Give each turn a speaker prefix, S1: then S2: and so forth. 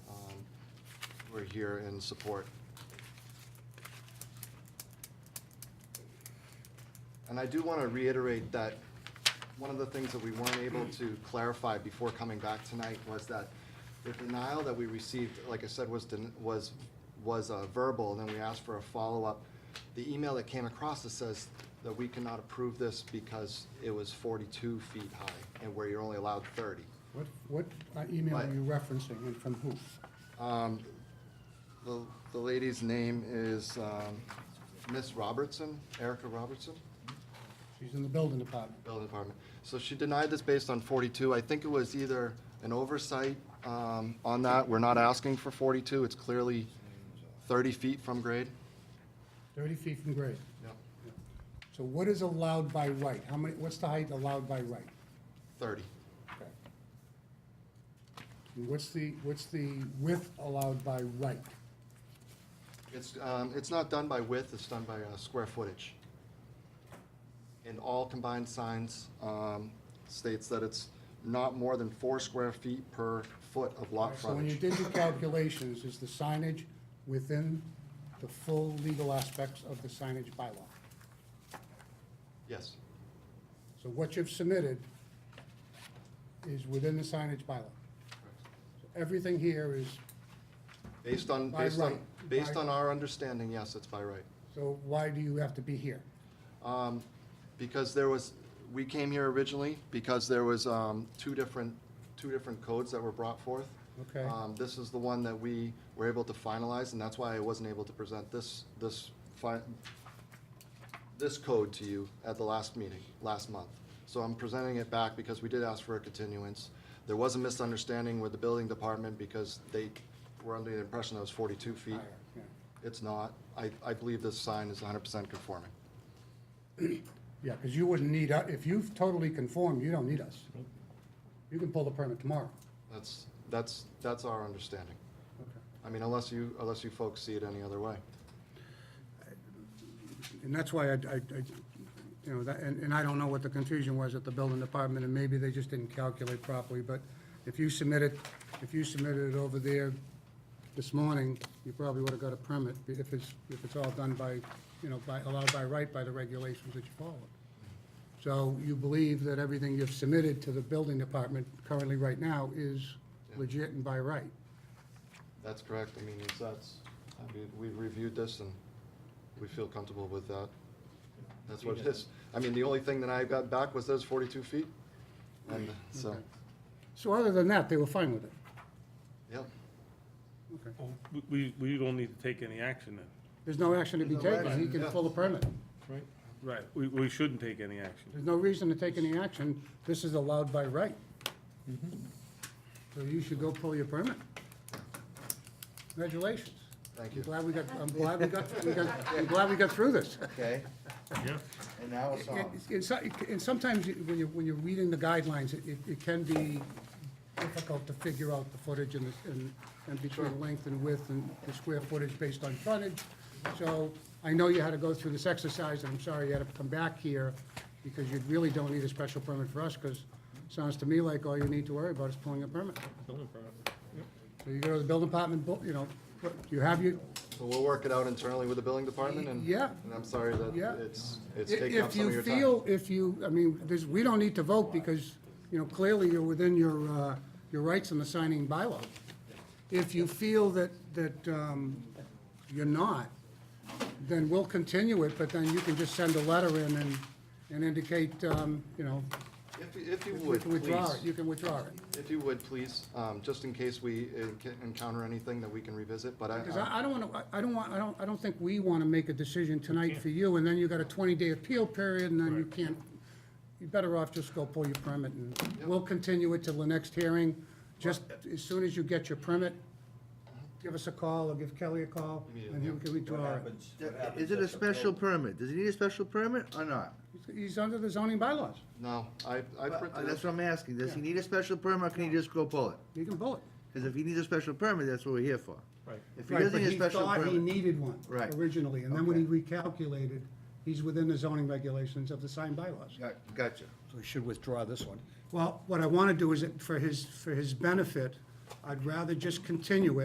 S1: Um, we're here in support. And I do want to reiterate that one of the things that we weren't able to clarify before coming back tonight was that the denial that we received, like I said, was, den- was, was uh, verbal, and then we asked for a follow-up. The email that came across that says that we cannot approve this because it was forty-two feet high, and where you're only allowed thirty.
S2: What, what uh, email
S1: What?
S2: are you referencing and from who?
S1: Um, The, the lady's name is, um, Miss Robertson, Erica Robertson,
S2: She's in the building department.
S1: building department. So she denied this based on forty-two. I think it was either an oversight, um, on that. We're not asking for forty-two. It's clearly thirty feet from grade.
S2: Thirty feet from grade.
S1: Yep.
S2: So what is allowed by right? How many, what's the height allowed by right?
S1: Thirty.
S2: Okay. And what's the, what's the width allowed by right?
S1: It's, um, it's not done by width, it's done by, uh, square footage. And all combined signs, um, states that it's not more than four square feet per foot of lot
S2: So when you
S1: frontage.
S2: did your calculations, is the signage within the full legal aspects of the signage bylaw?
S1: Yes,
S2: So what you've submitted is within the signage bylaw. So Everything here is,
S1: based on,
S2: By
S1: based on,
S2: right.
S1: based
S2: By-
S1: on our understanding, yes, it's by right.
S2: so why do you have to be here?
S1: Um, because there was, we came here originally because there was, um, two different, two different codes that were brought forth.
S2: Okay.
S1: Um, this is the one that we were able to finalize, and that's why I wasn't able to present this, this fi- this code to you at the last meeting, last month. So I'm presenting it back because we did ask for a continuance. There was a misunderstanding with the building department because they were under the impression that was forty-two feet.
S2: Higher, yeah.
S1: It's not. I, I believe this sign is hundred percent conforming.
S2: Yeah, because you wouldn't need, u- if you've totally conformed, you don't need us. You can pull the permit tomorrow.
S1: That's, that's, that's our understanding.
S2: Okay.
S1: I mean, unless you, unless you folks see it any other way.
S2: And that's why I, I, I- you know, that, and, and I don't know what the confusion was at the building department, and maybe they just didn't calculate properly, but if you submitted, if you submitted it over there this morning, you probably would have got a permit, if it's, if it's all done by, you know, by, allowed by right by the regulations that you follow. So you believe that everything you've submitted to the building department currently right now is legit and by right?
S1: That's correct. I mean, it's, that's, I mean, we've reviewed this and we feel comfortable with that. That's what it is. I mean, the only thing that I got back was those forty-two feet. And so,
S2: Okay. So other than that, they were fine with it?
S1: yeah,
S2: Okay.
S3: Well, we- We, we don't need to take any action then.
S2: There's no action to be
S1: There's no
S2: taken, he
S1: action,
S2: can
S1: yeah.
S2: pull a permit.
S3: Right. Right, we, we shouldn't take any action.
S2: There's no reason to take any action, this is allowed by right. So you should go pull your permit. Congratulations.
S1: thank
S2: I'm
S1: you.
S2: glad we got, I'm glad we got, we got- I'm glad we got through this.
S4: Okay,
S3: Yeah.
S4: and now it's on.
S2: And- And so- and sometimes you- when you're, when you're reading the guidelines, it, it can be difficult to figure out the footage and, the- and, and between length and width and the square footage based on frontage. So I know you had to go through this exercise, and I'm sorry you had to come back here, because you really don't need a special permit for us, because it sounds to me like all you need to worry about is pulling a permit. So you go to the building department, bu- you know, but you have your,
S1: So we'll work it out internally with the building department and.
S2: Yeah.
S1: And I'm sorry that
S2: Yeah.
S1: it's, it's
S2: If
S1: taking up
S2: if
S1: some of
S2: you
S1: your time.
S2: feel, if you, I mean, there's, we don't need to vote because, you know, clearly you're within your, uh, your rights in the signing bylaw. If you feel that, that um, you're not, then we'll continue it, but then you can just send a letter in and, and indicate, um, you know,
S1: If, you- if you
S2: you
S1: would,
S2: can withdraw
S1: please,
S2: it, you can withdraw it.
S1: if you would, please, um, just in case we enc- encounter anything that we can revisit, but I.
S2: Because I, I don't want to, I don't want, I don't, I don't think we want to make a decision tonight for you, and then you got a twenty-day appeal period, and then you can't, you're better off just go pull your permit, and we'll continue it till the next hearing. Just as soon as you get your permit,
S4: Mm-hmm.
S2: give us a call, or give Kelly a call, and he can withdraw it.
S4: Is it a special permit? Does it need a special permit or not?
S2: He's- He's under the zoning bylaws,
S1: No, I, I
S4: Uh,
S1: printed it.
S4: That's what I'm asking. Does he need a special permit or can he just go pull it?
S2: you can pull it.
S4: Because if he needs a special permit, that's what we're here for.
S3: Right.
S4: If he doesn't need a special
S2: Right, but he thought he
S4: permit,
S2: needed one
S4: Right.
S2: originally, and then when he recalculated, he's within the zoning regulations of the sign bylaws.
S4: Got- gotcha.
S5: So we should withdraw this one.
S2: Well, what I want to do is, that for his, for his benefit, I'd rather just continue it.